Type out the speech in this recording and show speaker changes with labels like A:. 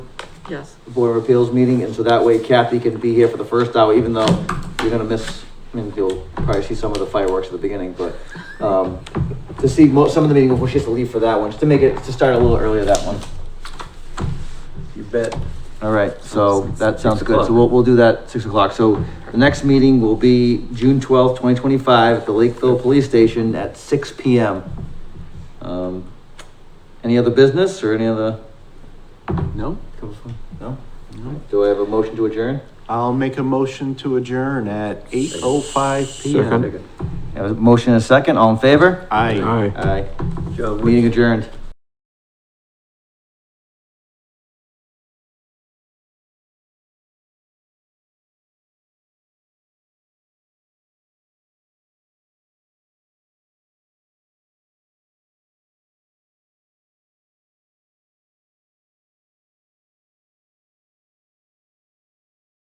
A: Yes.
B: Board of Appeals meeting, and so that way Kathy can be here for the first hour, even though you're gonna miss, I mean, you'll probably see some of the fireworks at the beginning, but, um, to see mo some of the meeting before she has to leave for that one, just to make it, to start a little earlier that one.
C: You bet.
B: All right, so that sounds
C: Six
B: good, so
C: o'clock.
B: we'll, we'll do that six o'clock, so the next meeting will be June twelfth, twenty twenty-five, at the Lakeville Police Station at six P M. Um, any other business or any other?
C: No?
B: No? Do I have a motion to adjourn?
C: I'll make a motion to adjourn at eight oh five P M.
B: Have a motion and a second, all in favor?
C: Aye.
B: Aye. Meeting adjourned.